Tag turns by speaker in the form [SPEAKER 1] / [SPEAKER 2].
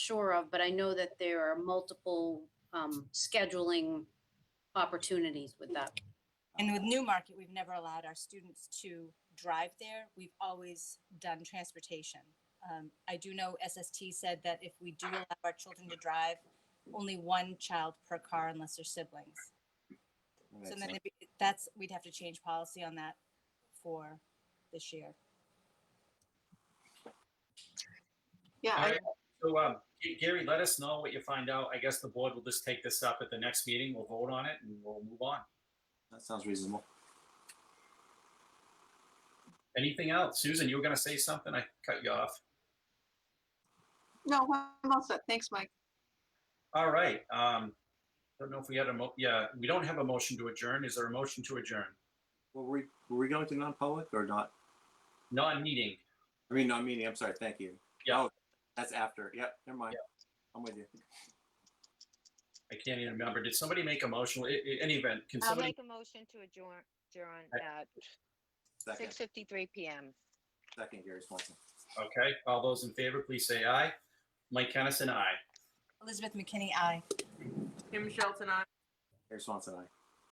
[SPEAKER 1] sure of, but I know that there are multiple um, scheduling opportunities with that.
[SPEAKER 2] And with Newmarket, we've never allowed our students to drive there. We've always done transportation. Um, I do know SST said that if we do allow our children to drive, only one child per car unless they're siblings. So then it'd be- that's, we'd have to change policy on that for this year.
[SPEAKER 3] Yeah,
[SPEAKER 4] All
[SPEAKER 3] I-
[SPEAKER 4] right. So, um, G- Gary, let us know what you find out. I guess the board will just take this up at the next meeting. We'll vote on it and we'll move on.
[SPEAKER 5] That sounds reasonable.
[SPEAKER 4] Anything else? Susan, you were going to say something? I cut you off.
[SPEAKER 3] no, I'm all set. Thanks, Mike.
[SPEAKER 4] All right. Um, don't know if we had a mo, yeah, we don't have a motion to adjourn. Is there a motion to adjourn?
[SPEAKER 5] Well, were we, were we going to non-public or not?
[SPEAKER 4] Non-meeting.
[SPEAKER 5] I mean, non meeting. I'm sorry. Thank you.
[SPEAKER 4] Yeah.
[SPEAKER 5] Oh, that's after. Yep. Never mind. I'm with you.
[SPEAKER 4] I can't even remember. Did somebody make a motion? I- I- Any event, can
[SPEAKER 6] I'll
[SPEAKER 4] somebody,
[SPEAKER 6] make a motion to adjourn, adjourn
[SPEAKER 4] I-
[SPEAKER 6] at
[SPEAKER 5] Second,
[SPEAKER 6] six fifty-three PM.
[SPEAKER 5] second, Gary Swanson.
[SPEAKER 4] okay, all those in favor, please say aye. Mike Kennison, aye.
[SPEAKER 2] Elizabeth McKinney, aye.
[SPEAKER 7] Kim Shelton, I.
[SPEAKER 5] Gary Swanson, aye.